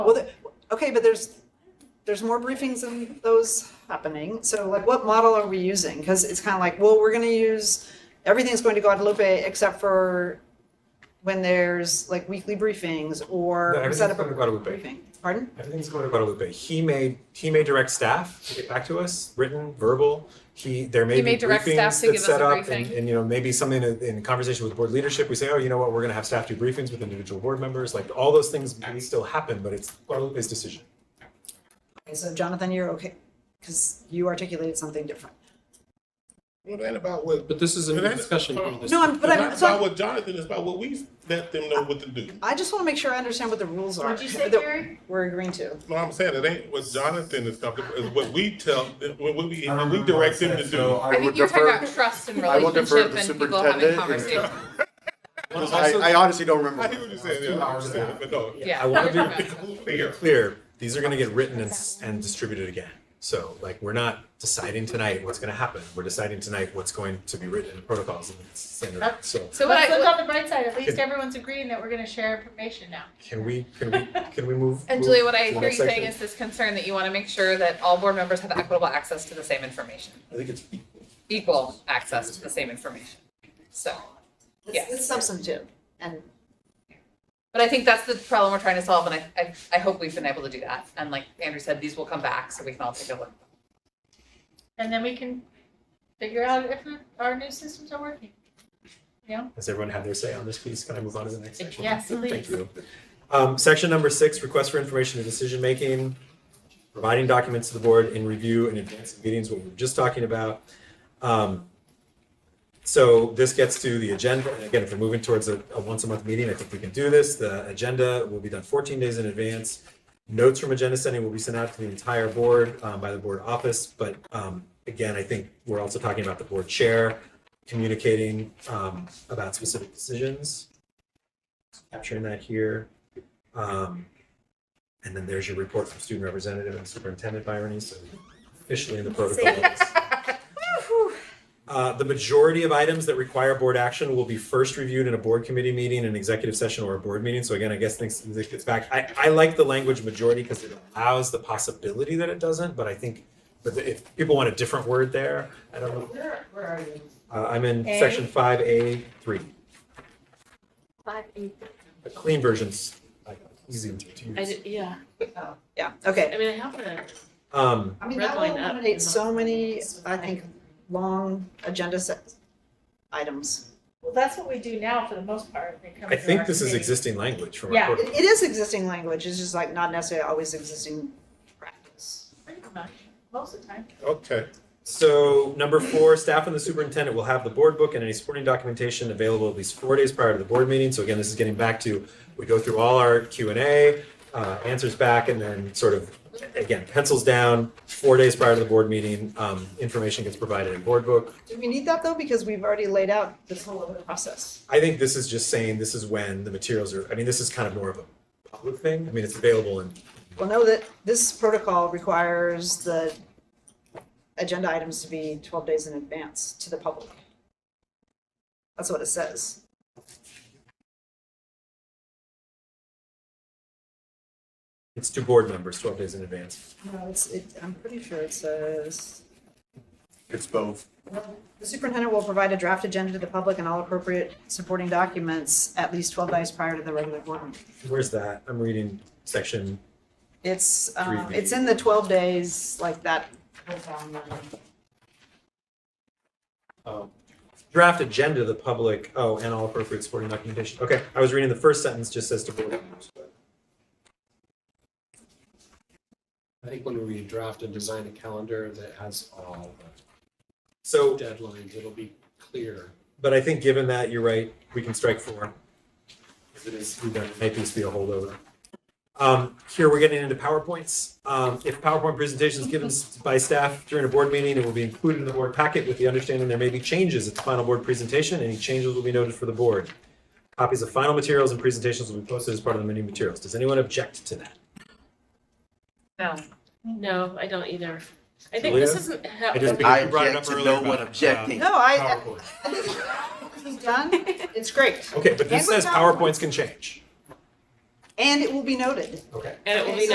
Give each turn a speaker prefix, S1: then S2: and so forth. S1: Well, the- okay, but there's, there's more briefings than those happening. So like, what model are we using? Because it's kind of like, well, we're going to use, everything's going to Guadalupe except for when there's like weekly briefings or
S2: No,
S1: we set up
S2: everything's going to
S1: a
S2: Guadalupe.
S1: briefing. Pardon?
S2: Everything's going to Guadalupe. He may he may direct staff to get back to us, written, verbal. He there may
S3: He
S2: be
S3: may direct
S2: briefings
S3: staff
S2: that's
S3: to give us
S2: set
S3: a
S2: up, and,
S3: briefing.
S2: and you know maybe something in, in conversation with board leadership. We say, oh, you know what, we're going to have staff do briefings with individual board members. Like all those things may still happen, but it's Guadalupe's decision.
S1: Okay, so Jonathan, you're okay, because you articulated something different.
S4: Well, that ain't about what.
S5: But this is a new
S4: That's-
S5: discussion.
S4: hold on.
S1: No, I'm, but
S4: It's
S1: I'm,
S4: not
S1: so
S4: about
S1: I'm-
S4: what Jonathan is about, what we let them know what to do.
S1: I just want to make sure I understand what the rules are.
S6: What'd you say,
S1: that
S6: Gary?
S1: We're agreeing to.
S4: No, I'm saying it ain't what Jonathan is talking, about. is what we tell, what what we, what we direct them to do.
S3: I think you're talking about trust and
S7: I will defer to
S3: relationship and people having
S7: superintendent.
S3: conversations.
S7: I, I honestly don't
S4: I
S7: remember.
S4: hear what you're saying, yeah, I understand, but no.
S3: Yeah.
S2: I want to be
S3: Okay.
S4: Clear.
S2: clear. These are going to get written and, s- and distributed again. So like we're not deciding tonight what's going to happen. We're deciding tonight what's going to be written in the protocols and the standard. So
S3: So what
S6: Let's
S3: I,
S6: look
S3: what-
S6: on the bright side, at least
S2: Okay.
S6: everyone's agreeing that we're gonna share information now.
S2: can we can we can we move?
S3: and
S2: move
S3: Julia, what
S2: to
S3: I
S2: the
S3: hear you
S2: next
S3: saying
S2: section?
S3: is this concern that you want to make sure that all board members have equitable access to the same information,
S7: I think it's
S3: equal access to the same information. So,
S1: It's- It's substantive and
S3: but I think that's the problem we're trying to solve, and I, I, I hope we've been able to do that. And like Andrew said, these will come back, so we can all take a look.
S6: And then we can figure out if our new systems are working.
S2: Does everyone have their say on this piece? Can I move on to the next section?
S6: Yes,
S2: Thank
S6: please.
S2: you. Um, section number six, request for information and decision-making, providing documents to the board in review and advance of meetings, what we were just talking about. Um, so this gets to the agenda, and again, if we're moving towards a, a once-a-month meeting, I think we can do this. The agenda will be done fourteen days in advance. Notes from agenda sending will be sent out to the entire board, um, by the board office, but, um, again, I think we're also talking about the board chair communicating, um, about specific decisions capturing that here. Um, and then there's your report from student representative and superintendent Byron, so officially in the protocols. Uh, the majority of items that require board action will be first reviewed in a board committee meeting, an executive session, or a board meeting. So again, I guess things, this gets back, I, I like the language majority because it allows the possibility that it doesn't, but I think, but if people want a different word there, I don't know.
S6: Where, where are you?
S2: Uh, I'm in
S6: A?
S2: section five A three,
S8: Five, eight.
S2: the clean version's like, easy to
S8: I
S2: use.
S8: did, yeah,
S1: yeah, okay.
S8: I mean, I have a,
S2: Um,
S1: I mean,
S8: Red
S1: that will
S8: line up.
S1: eliminate so many, I think, long agenda set items.
S6: Well, that's what we do now for the most part. when it comes
S2: I
S6: to
S2: think
S6: our
S2: this is
S6: committee.
S2: existing language from
S6: Yeah.
S2: our
S1: It,
S2: code.
S1: it is existing language, it's just like not necessarily always existing practice.
S6: Pretty much, most of the time.
S4: Okay.
S2: So number four, staff and the superintendent will have the board book and any supporting documentation available at least four days prior to the board meeting. So again, this is getting back to, we go through all our Q and A, uh, answers back and then sort of, again, pencils down, four days prior to the board meeting, um, information gets provided in board book.
S1: Do we need that though? Because we've already laid out this whole other process.
S2: I think this is just saying this is when the materials are, I mean, this is kind of more of a public thing. I mean, it's available in
S1: Well, know that this protocol requires the agenda items to be twelve days in advance to the public. That's what it says.
S2: it's to board members twelve days in advance.
S1: No, it's, it, I'm pretty sure it says,
S7: it's both.
S1: the superintendent will provide a draft agenda to the public and all appropriate supporting documents at least twelve days prior to the regular board meeting.
S2: Where's that? I'm reading section
S1: It's, um,
S2: Three
S1: it's in the twelve days, like that. whole timeline.
S2: draft agenda to the public, oh, and all appropriate supporting documentation. Okay, I was reading the first sentence, just says to board members. but-
S5: I think when we draft and design a calendar that has all the
S2: So,
S5: deadlines, it'll be clear.
S2: but I think given that, you're right, we can strike four. If it is, we don't, maybe it's be a holdover. Um, here, we're getting into PowerPoints. Um, if PowerPoint presentations given s- by staff during a board meeting, it will be included in the board packet with the understanding there may be changes at the final board presentation. Any changes will be noted for the board. Copies of final materials and presentations will be posted as part of the meeting materials. Does anyone object to that?
S3: No,
S8: no, I don't either. I think this
S2: Julia?
S8: isn't
S2: I just-
S8: how,
S2: Because
S7: I
S2: you brought it up
S7: object to
S2: earlier
S7: no one
S2: about, uh,
S7: objecting.
S1: No, I,
S2: PowerPoint.
S1: I think this is done, it's great.
S2: Okay, but this
S1: Language
S2: says
S1: PowerPoint.
S2: PowerPoints can change.
S9: and it will be noted.
S10: Okay.
S1: And it will be